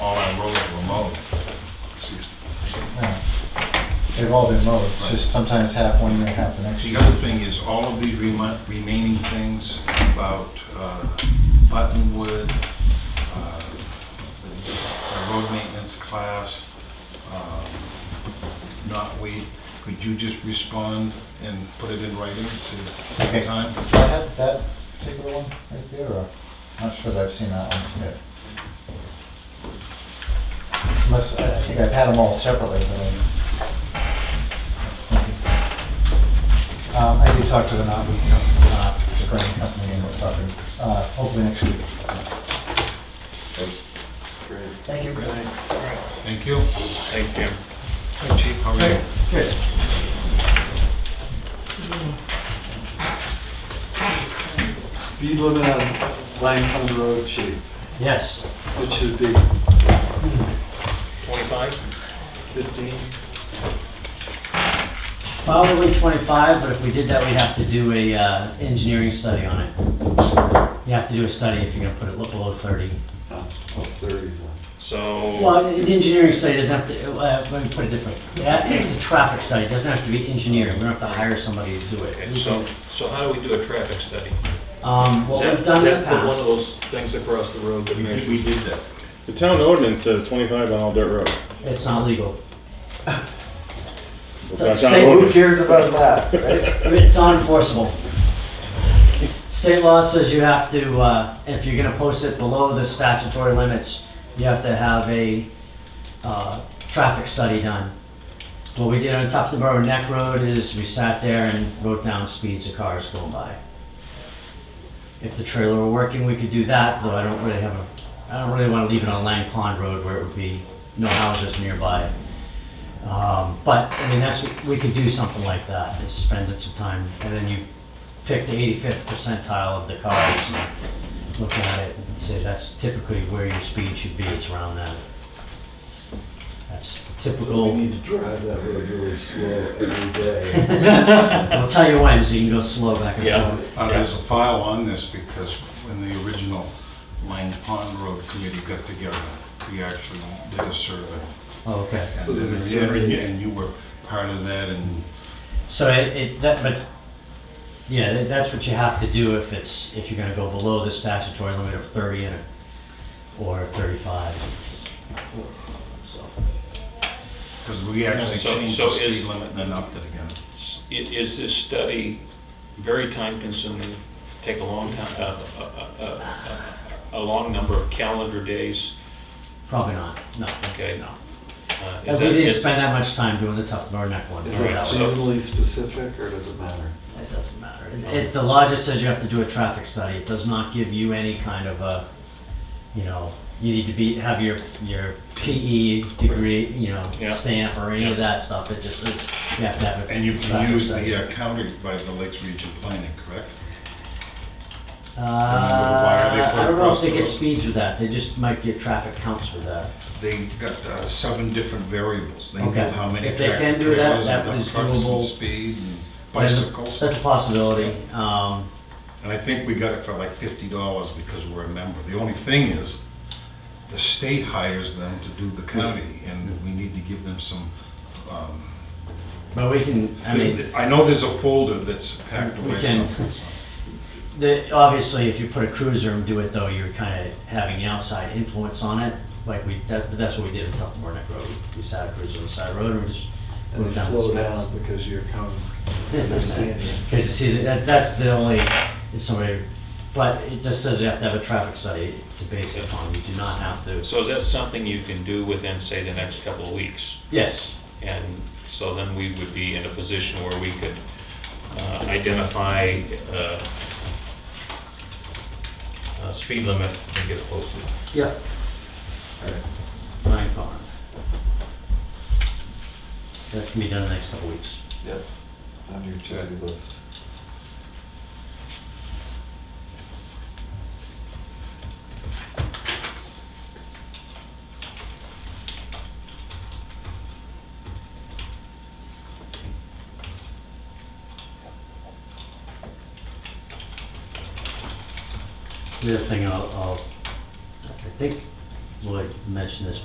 They've all been mowed, it's just sometimes half one year, half the next The year. other thing is, all of these remi- remaining things about uh, Buttonwood, uh, the- the road maintenance class, um, not wait, could you just respond and put it in writing, say, same Okay. time? Do I have that particular one right there, or, I'm not sure that I've seen that one yet. Unless, I I think I've had them all separately, but I. Okay. Um, I did talk to the Knott, Knott Spring Company, and we're talking, uh, hopefully next week. Thank you. Thank you. Thank you. Hey, Chief, how are you? Good. Speed limit on Langford Road, chief, Yes. it should be 25? 15. Probably 25, but if we did that, we'd have to do a uh, engineering study on it. You have to do a study if you're gonna put it below 30. Oh, 30 then. So, Well, an engineering study doesn't have to, uh, let me put it different. That- It's a traffic study, it doesn't have to be engineering, we don't have to hire somebody to do it. okay, so, so how do we do a traffic study? Um, What Is that- we've done is in the that put One of past, those things across the road that We did- measures. We did that. The town ordinance says 25 on all dirt roads. it's not legal. It's So not town state Who ordinance. cares about that, right? It's unenforceable. State law says you have to, uh, if you're gonna post it below the statutory limits, you have to have a, uh, traffic study done. What we did on Tuftonboro Neck Road is we sat there and wrote down speeds of cars going by. If the trailer were working, we could do that, though I don't really have a, I don't really wanna leave it on Lang Pond Road where it would be no houses nearby. Um, but, I mean, that's, we could do something like that, is spend it some time, and then you pick the eighty-fifth percentile of the cars and look at it and say that's typically where your speed should be, it's around that. That's the So we typical, need to drive that road really slow every day. I'll tell you when, so you can go slow back Yeah. and forth. Uh, There's a file on this because when the original Lang Pond Road Committee got together, we actually did a survey. Oh, okay. So And there's a then survey. and you were part of that and So it, it, that, but, yeah, that- that's what you have to do if it's, if you're gonna go below the statutory limit of thirty and, or thirty-five. So. Because we actually So- changed so the speed is- limit and then upped it again. S- i- Is this study very time-consuming, take a long time, uh, uh, uh, uh, a long number of calendar days? Probably not, no. Okay. No. Uh, And is we that- didn't is- spend that much time doing the tough North neck one. Is That it was- seasonally specific or does it matter? It doesn't matter. It- It, the law just says you have to do a traffic study. It does not give you any kind of a, you know, you need to be, have your, your PE degree, you know, Yeah. stamp or any Yeah. of that stuff. It just is, you have to have a. And you can traffic use study. the uh, county by the Lakes Region Planning, correct? Uh, why are they I put don't know if across they the get road? speeds with that. They just might get traffic counts with that. They got uh, seven different variables. They Okay. knew how many If they can tractor do that, trailers that and dump was trucks and doable. speed and bicycles. That's a possibility. Um, And I think we got it for like fifty dollars because we're a member. The only thing is, the state hires them to do the county and we need to give them some, um, but we can, I mean. there's- I know there's a folder that's packed We away can- someplace. The, obviously, if you put a cruiser and do it though, you're kind of having an outside influence on it. Like we, that, that's what we did with Tufton Neck Road. We sat a cruiser on the side of the road and we just And moved they down the slow speeds. down because you're coming, they're seeing you. Because you see, that, that's the only, if somebody, but it just says you have to have a traffic study to base it on. You do not have to. So is that something you can do within, say, the next couple of weeks? Yes, And so then we would be in a position where we could uh, identify uh, a speed limit and get it posted. yep. Ryan Pond. That can be done in the next couple of weeks. Yep, on your to-do list. The other thing I'll, I'll, I think Lloyd mentioned this